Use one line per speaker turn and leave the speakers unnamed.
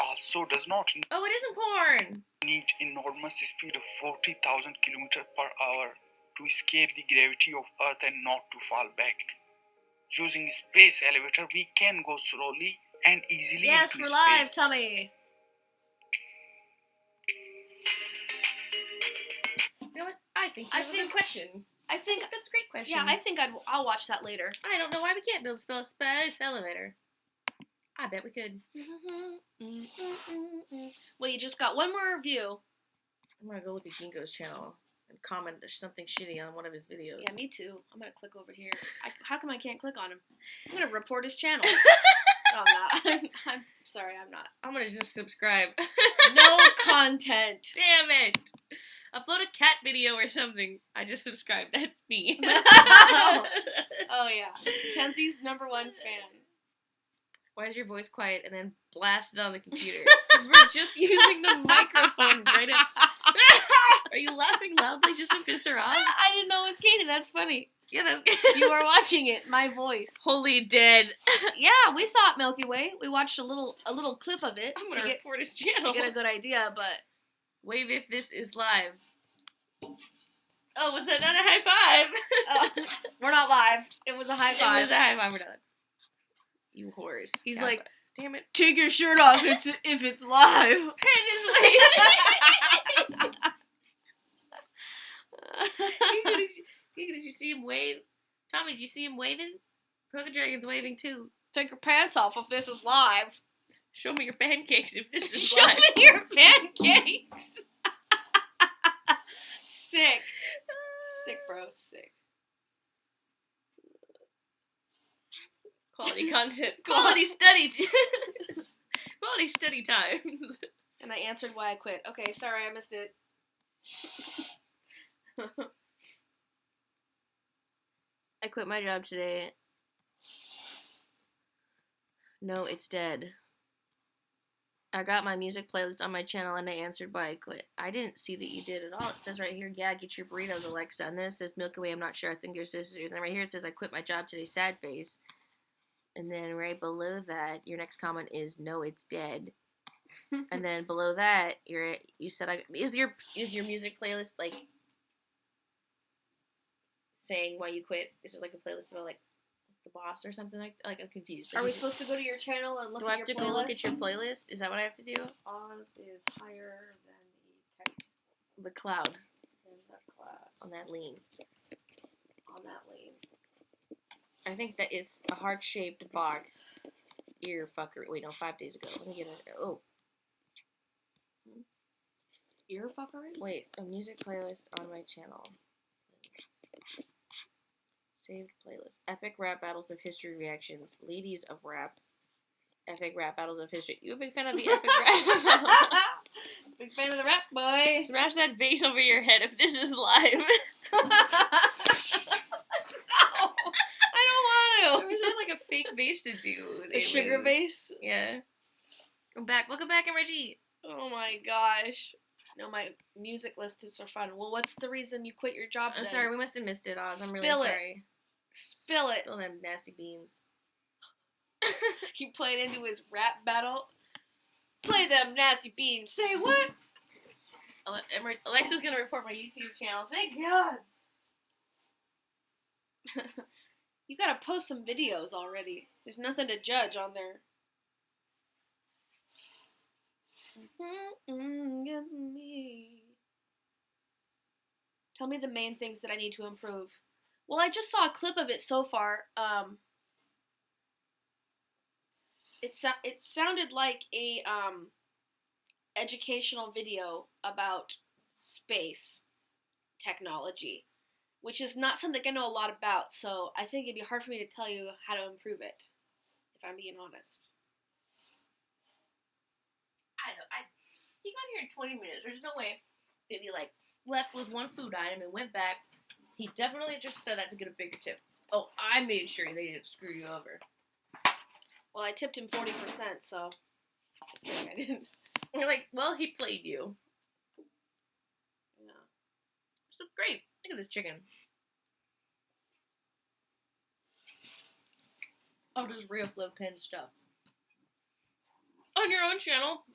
also does not
Oh, it isn't porn.
need enormous speed of 40,000 km per hour to escape the gravity of Earth and not to fall back. Using space elevator, we can go slowly and easily
Yes,
into
we're live,
space.
Tommy.
You know what? I think you
I
have a
think-
good question.
I
I
think.
think that's a great question.
Yeah, I think I'd, I'll watch that later.
I don't know why we can't build a spell space elevator. I bet we could.
Well, you just got one more review.
I'm gonna go look at Ginkgo's channel and comment something shitty on one of his videos.
Yeah, me too. I'm gonna click over here. I, how come I can't click on him? I'm gonna report his channel. no, I'm not. I'm, I'm sorry, I'm not.
I'm gonna just subscribe.
No content.
Damn it! Upload a cat video or something. I just subscribed. That's me.
oh, yeah, Kenzie's number one fan.
Why is your voice quiet and then blasted on the computer? Because we're just using the microphone right at. Are you laughing loudly just to piss her off?
I didn't know it was Katie. That's funny.
Yeah, that's.
You are watching it. My voice.
Holy dead.
Yeah, we saw it Milky Way. We watched a little a little clip of it
I'm
to
gonna
get
report his
to
channel.
get a good idea, but
Wave if this is live. Oh, was that not a high five?
uh, we're not live. It was a high
It was
five.
a high five. We're done. You whores.
He's
Yeah,
like-
but- damn it.
Take your shirt off it's, if it's live.
Giga, did you- Giga, did you see him wave? Tommy, did you see him waving? Poker Dragon's waving too.
Take your pants off if this is live.
Show me your pancakes if this is
Show
live.
me your pancakes. sick. Sick, bro. Sick.
Quality content. Quality study. t- Quality study times.
And I answered why I quit. Okay, sorry, I missed it.
I quit my job today. No, it's dead. I got my music playlist on my channel and I answered why I quit. I didn't see that you did at all. It says right here, yeah, get your burritos, Alexa. And then it says Milky Way, I'm not sure, I think your sisters. And then right here it says I quit my job today, sad face. And then right below that, your next comment is no, it's dead. and then below that, you're you said I is your is your music playlist like saying why you quit? Is it like a playlist about like the boss or something like Like I'm confused. Like,
Are we
is it-
supposed to go to your channel and look
do
at
I have
your
to
playlist?
go look at your playlist? Is that what I have to do?
Oz is higher than the kite
The cloud
than the cloud
on that lean.
on that lane.
I think that it's a heart shaped box. Ear fucker. Wait, no, five days ago. Let me get it. Oh,
Ear fuckery?
wait. A music playlist on my channel. Saved playlist. Epic rap battles of history reactions. Ladies of rap. Epic rap battles of history. You a big fan of the epic rap?
Big fan of the rap boy.
Smash that vase over your head if this is live.
no, I
I
don't want
wish I had like a fake vase to do.
to. A sugar
vase.
base?
Yeah. Come back. Welcome back, I'm Reggie.
Oh my gosh. No, my music list is for fun. Well, what's the reason you quit your job?
I'm
then?
sorry, we must have missed it, Oz. I'm really
Spill it.
sorry.
Spill it.
Spill them nasty beans.
He played into his rap battle. Play them nasty beans. Say what?
Ale- Emer- Alexa's gonna report my YouTube channel. Thank God.
You gotta post some videos already. There's nothing to judge on there. Mm, gets me. Tell me the main things that I need to improve. Well, I just saw a clip of it so far. Um, it so- it sounded like a um, educational video about space technology which is not something I know a lot about, so I think it'd be hard for me to tell you how to improve it, if I'm being honest.
I don't. I. He got here in 20 minutes. There's no way that he like left with one food item and went back. He definitely just said that to get a bigger tip. Oh, I made sure they didn't screw you over.
Well, I tipped him 40%, so. Just kidding, I didn't.
And you're like, well, he played you.
Yeah.
So great. Look at this chicken. I'll just re-upload pin stuff on your own channel.